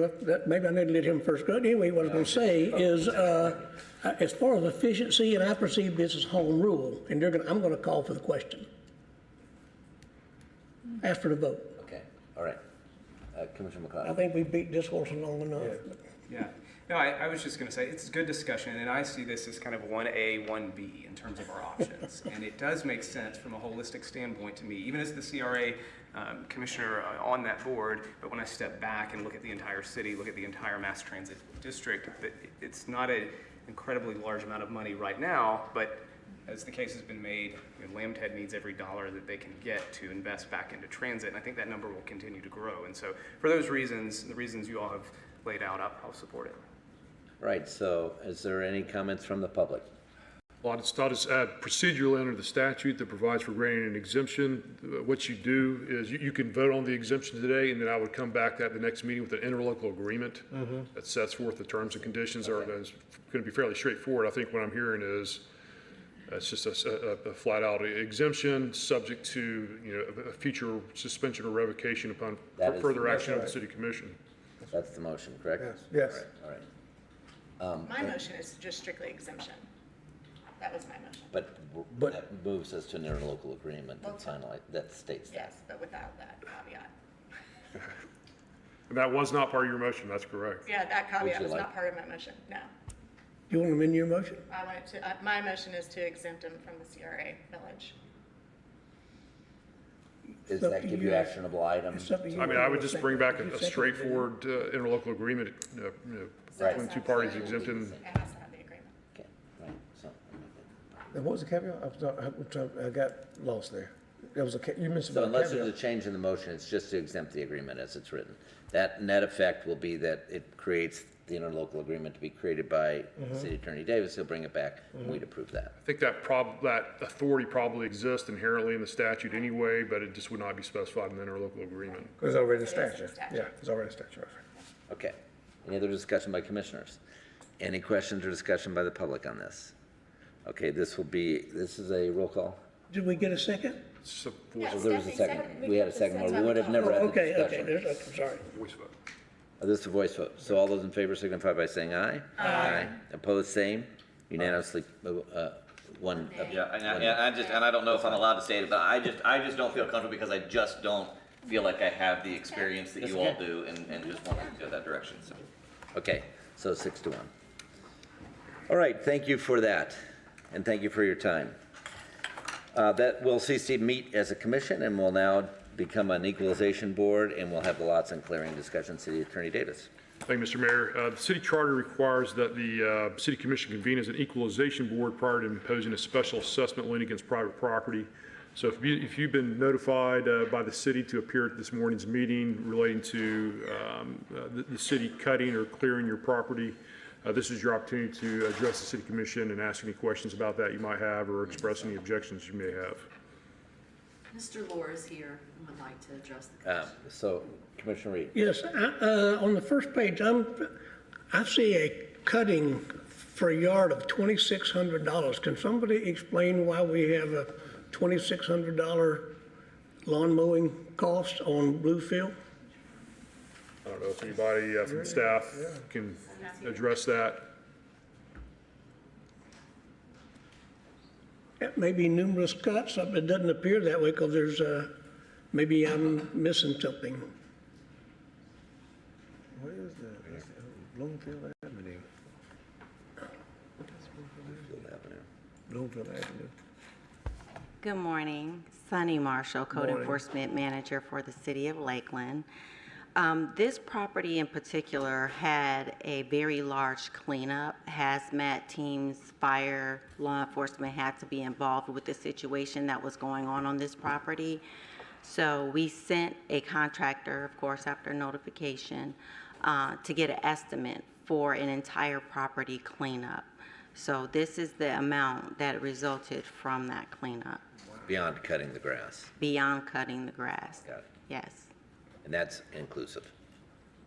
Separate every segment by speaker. Speaker 1: But that- Maybe I need to let him first go. Anyway, what I was going to say is, uh, uh, as far as efficiency, and I perceive this as home rule, and they're going, to I'm going to call for the question. Ask for the vote.
Speaker 2: Okay, all right. Uh, Commissioner
Speaker 1: I
Speaker 2: McLeod.
Speaker 1: think we beat this horse long enough.
Speaker 3: Yeah, no, I, I was just gonna say, it's a good discussion, and I see this as kind of one A, one B in terms of our options. And it does make sense from a holistic standpoint to me, even as the CRA um, commissioner uh, on that board, but when I step back and look at the entire city, look at the entire mass transit district, that it- it's not an incredibly large amount of money right now, but as the case has been made, you know, Lamb's Head needs every dollar that they can get to invest back into transit, and I think that number will continue to grow. And so, for those reasons, the reasons you all have laid out, I'll, I'll support it.
Speaker 2: Right, so is there any comments from the public?
Speaker 4: Well, I just thought it's uh, procedural under the statute that provides for granting an exemption. Uh, What you do is you- you can vote on the exemption today, and then I would come back at the next meeting with an interlocal agreement that sets forth the terms and conditions. Are going to be fairly straightforward. I think what I'm hearing is uh, it's just a s- a a- a flat-out exemption, subject to, you know, a- a future suspension or revocation upon
Speaker 2: That is-
Speaker 4: further action of the city commission.
Speaker 2: That's the motion, correct?
Speaker 5: Yes.
Speaker 2: All right,
Speaker 6: My motion is just strictly exemption. That was my motion.
Speaker 2: but w-
Speaker 5: But-
Speaker 2: that moves us to an interlocal agreement that finalized, that states that.
Speaker 6: Yes, but without that caveat.
Speaker 4: And that was not part of your motion, that's correct.
Speaker 6: Yeah, that caveat
Speaker 2: you
Speaker 6: was
Speaker 2: like-
Speaker 6: not part of my motion, no.
Speaker 1: You want to amend your motion?
Speaker 6: I wanted to, uh, my motion is to exempt them from the CRA village.
Speaker 2: Does
Speaker 1: up
Speaker 2: that
Speaker 1: to
Speaker 2: give you
Speaker 1: you.
Speaker 2: actionable items?
Speaker 1: It's up to you.
Speaker 4: I mean, I would just bring back a
Speaker 1: You
Speaker 4: a
Speaker 1: second it.
Speaker 4: straightforward uh, interlocal agreement, uh, you know,
Speaker 6: So
Speaker 2: Right.
Speaker 6: it's
Speaker 4: between two
Speaker 6: not-
Speaker 4: parties exempting.
Speaker 6: It has to have the agreement.
Speaker 2: Okay, right, so,
Speaker 5: And what was the caveat? I was not- I was trying- I got lost there. There was a, ca- you mentioned
Speaker 2: so
Speaker 5: about a
Speaker 2: unless there's a
Speaker 5: caveat.
Speaker 2: change in the motion, it's just to exempt the agreement as it's written. That net effect will be that it creates the interlocal agreement to be created by
Speaker 5: Mm-hmm.
Speaker 2: City Attorney Davis. He'll bring it back, and we'd approve that.
Speaker 4: I think that prob, that authority probably exists inherently in the statute anyway, but it just would not be specified in the interlocal agreement.
Speaker 5: It's already a
Speaker 6: It is in the
Speaker 5: statute.
Speaker 6: statute.
Speaker 5: Yeah, it's already a statute.
Speaker 2: Okay. Any other discussion by commissioners? Any questions or discussion by the public on this? Okay, this will be, this is a roll call.
Speaker 1: Did we get a second?
Speaker 4: So,
Speaker 6: Yeah,
Speaker 4: voice
Speaker 2: There was a
Speaker 6: Stephanie
Speaker 2: second,
Speaker 6: seconded.
Speaker 2: we had a
Speaker 6: That's
Speaker 2: second,
Speaker 6: why
Speaker 2: one. we
Speaker 6: we
Speaker 2: would have
Speaker 6: called.
Speaker 2: never
Speaker 1: Oh,
Speaker 2: had the
Speaker 1: Okay, okay,
Speaker 2: discussion.
Speaker 1: there's- I'm sorry.
Speaker 4: voice vote.
Speaker 2: Uh, This is a voice vote, so all those in favor signify by saying aye. Aye. Opposed, same, unanimously, uh, one.
Speaker 7: Yeah, and I, and I just, and I don't know if I'm allowed to say it, but I just, I just don't feel comfortable because I just don't feel like I have the experience that you all
Speaker 2: okay.
Speaker 7: do and, and just want to go that direction, so.
Speaker 2: Okay, so six to one. All right, thank you for that, and thank you for your time. Uh, That will cease to meet as a commission, and will now become an equalization board, and we'll have the lots and clearing discussion, City Attorney Davis.
Speaker 4: Thank you, Mr. Mayor. Uh, The city charter requires that the uh, city commission convene as an equalization board prior to imposing a special assessment lien against private property. So if you, if you've been notified uh, by the city to appear at this morning's meeting relating to um, uh, the, the city cutting or clearing your property, uh, this is your opportunity to address the city commission and ask any questions about that you might have or express any objections you may have.
Speaker 8: Mr. Lore is here and would like to address the
Speaker 2: Um,
Speaker 8: commission.
Speaker 2: So Commissioner Reed,
Speaker 1: Yes, I, uh, on the first page, I'm, I see a cutting for a yard of twenty-six hundred dollars. Can somebody explain why we have a twenty-six hundred dollar lawn mowing cost on Bluefield?
Speaker 4: I don't know if anybody uh, from staff can address that.
Speaker 1: It may be numerous cuts, uh, it doesn't appear that way because there's, uh, maybe I'm missing something.
Speaker 5: Where is the, Bloomfield Avenue?
Speaker 2: Field Avenue.
Speaker 5: Bloomfield Avenue.
Speaker 9: Good morning, Sunny Marshall, Code Enforcement Manager for the City of Lakeland. Um, This property in particular had a very large cleanup. Hazmat teams, fire, law enforcement had to be involved with the situation that was going on on this property. So we sent a contractor, of course, after notification, uh, to get an estimate for an entire property cleanup. So this is the amount that resulted from that cleanup,
Speaker 2: Beyond cutting the grass,
Speaker 9: beyond cutting the grass.
Speaker 2: Got it.
Speaker 9: Yes,
Speaker 2: and that's inclusive.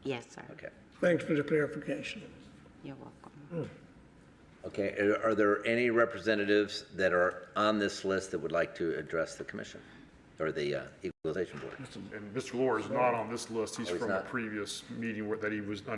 Speaker 9: yes, sir.
Speaker 2: Okay.
Speaker 1: Thanks for the clarification.
Speaker 9: You're welcome.
Speaker 2: Okay, uh, are- are there any representatives that are on this list that would like to address the commission? or the uh, equalization board.
Speaker 4: And Mr. Lawler is not on this list. He's
Speaker 2: Oh, he's
Speaker 4: from a
Speaker 2: not.
Speaker 4: previous meeting where, that he was